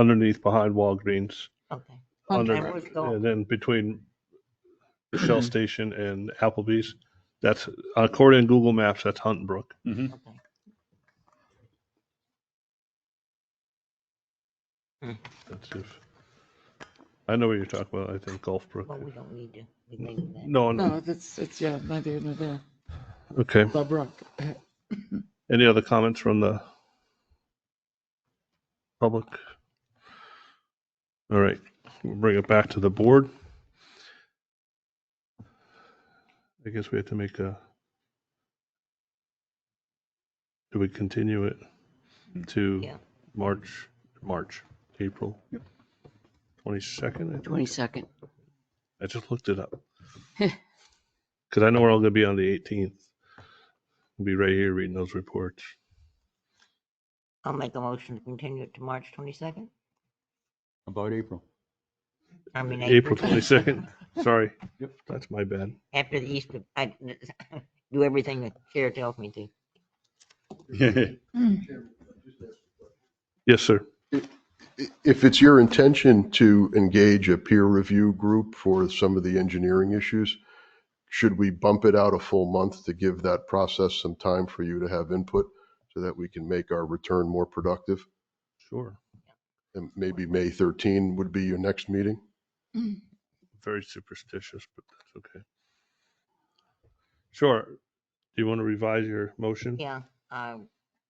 underneath behind Walgreens, Okay. under, Okay, we've got- and then between Shell Station and Applebee's. That's according to Google Maps. That's Hunton Brook. okay. That's if I know what you're talking about. I think Gulf Brook. Well, we don't need to be thinking that. No, No, no. that's, it's, yeah, neither here nor there. Okay. The Brook. Any other comments from the public? All right, we'll bring it back to the board. I guess we have to make a. Do we continue it to Yeah. March, March, April? Twenty-second, I think. Twenty-second. I just looked it up. Because I know we're all going to be on the 18th. We'll be right here reading those reports. I'll make a motion to continue it to March twenty-second. About April. I mean. Uh, April 22nd. Sorry. Yep. That's my bad. After the Easter, I do everything the chair tells me to. Yes, sir. If it's your intention to engage a peer review group for some of the engineering issues, should we bump it out a full month to give that process some time for you to have input so that we can make our return more productive? Sure. And maybe May 13 would be your next meeting? Very superstitious, but that's okay. Sure. Do you want to revise your motion? Yeah, I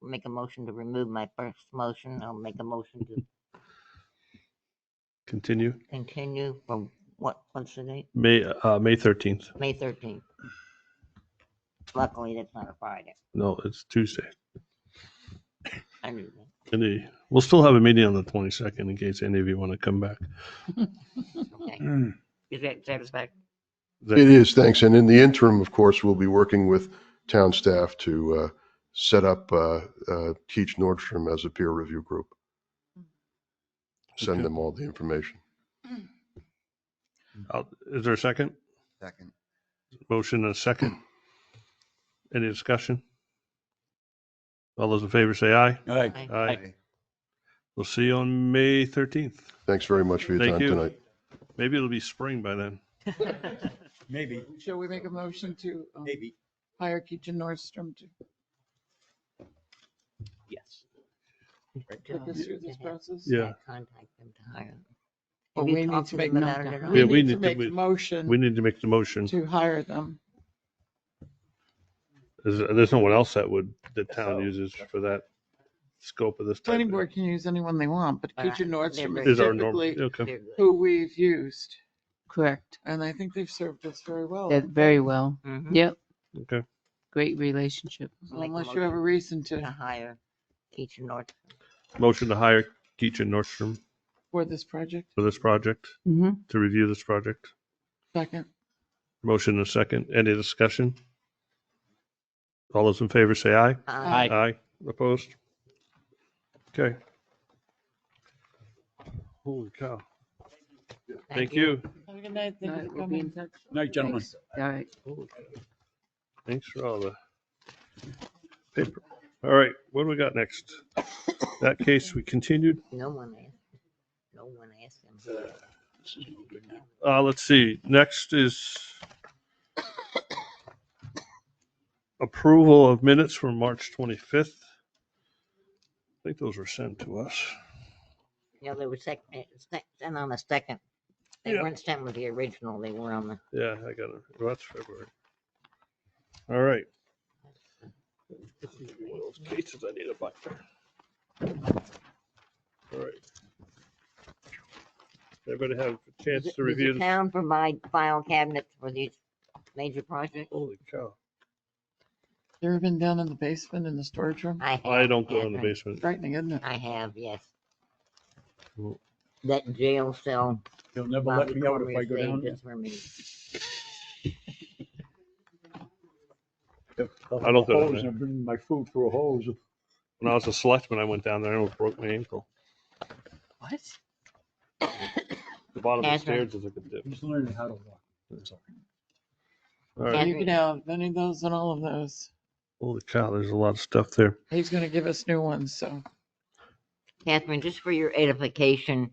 make a motion to remove my first motion. I'll make a motion to Continue. continue from what, what's the date? May, uh, May 13th. May thirteenth. Luckily, that's not a Friday. No, it's Tuesday. I knew that. And the- we'll still have a meeting on the 22nd in case any of you want to come back. Okay. Mm. Is that satisfactory? Is that- It is, thanks. And in the interim, of course, we'll be working with town staff to uh, set up uh, uh, Teach Nordstrom as a peer review group. Mm-hmm. Okay. Send them all the information. I'll- Is there a second? Second. Motion and a second. Any discussion? All those in favor say aye. All right. Aye. We'll see you on May 13th. Thanks very much for your Thank time you. tonight. Maybe it'll be spring by then. Maybe, Shall we make a motion to um, maybe. hire Keaton Nordstrom to Yes. take us through this process? Yeah. Contact them to hire. Or Have you we need talked to to make, them no, about it at no, all? Yeah, we we need to need to- make we- the motion We need to make the motion. to hire them. There's, there's no one else that would, the town uses for that scope of this. type of- Planning board can use anyone they want, but Uh, Keaton they're Nordstrom very- is Is our norm, typically okay. They're good. who we've used. Correct. And I think they've served us very well. That very well. Mhm. Yep. Okay. Great relationship. So Unless you have a reason To to, hire Keach North. Motion to hire Keaton Nordstrom for this project. for this project, Mm-hmm. to review this project. Second, Motion and a second. Any discussion? All those in favor say aye. Aye. Aye. Opposed? Okay. Holy cow. Thank you. have a good night. Thank you for We'll be in coming. touch. Night, gentlemen. Thanks. All right. Thanks for all the paper. All right, what do we got next? That case we continued. No one asked. No one asked them. Uh, let's see, next is approval of minutes from March 25th. I think those were sent to us. You know, they were sec, eh, sec- sent on the second. They Yeah. weren't sent with the original, they were on the, Yeah, I got it. Well, That's February. All right. One of those cases I need a buck for. All right. Everybody have a chance Does to the- does review the this? town provide file cabinets for these major projects? Holy cow. You ever been down in the basement in the storage room? I have. I don't go in the Catherine. basement. Frightening, isn't it? I have, yes. Well- That jail cell. They'll never let Bobby me out if Cormier I go saved down. it for me. there. I don't go down Hose, there. I'm bringing my food through a hose. When I was a selectman, I went down there and almost broke my ankle. What? The bottom of the Catherine. stairs is like a dip. He's learning how to walk. That's all. All right. You can have any of those and all of those. Holy cow, there's a lot of stuff there. He's gonna give us new ones, so Catherine, just for your edification,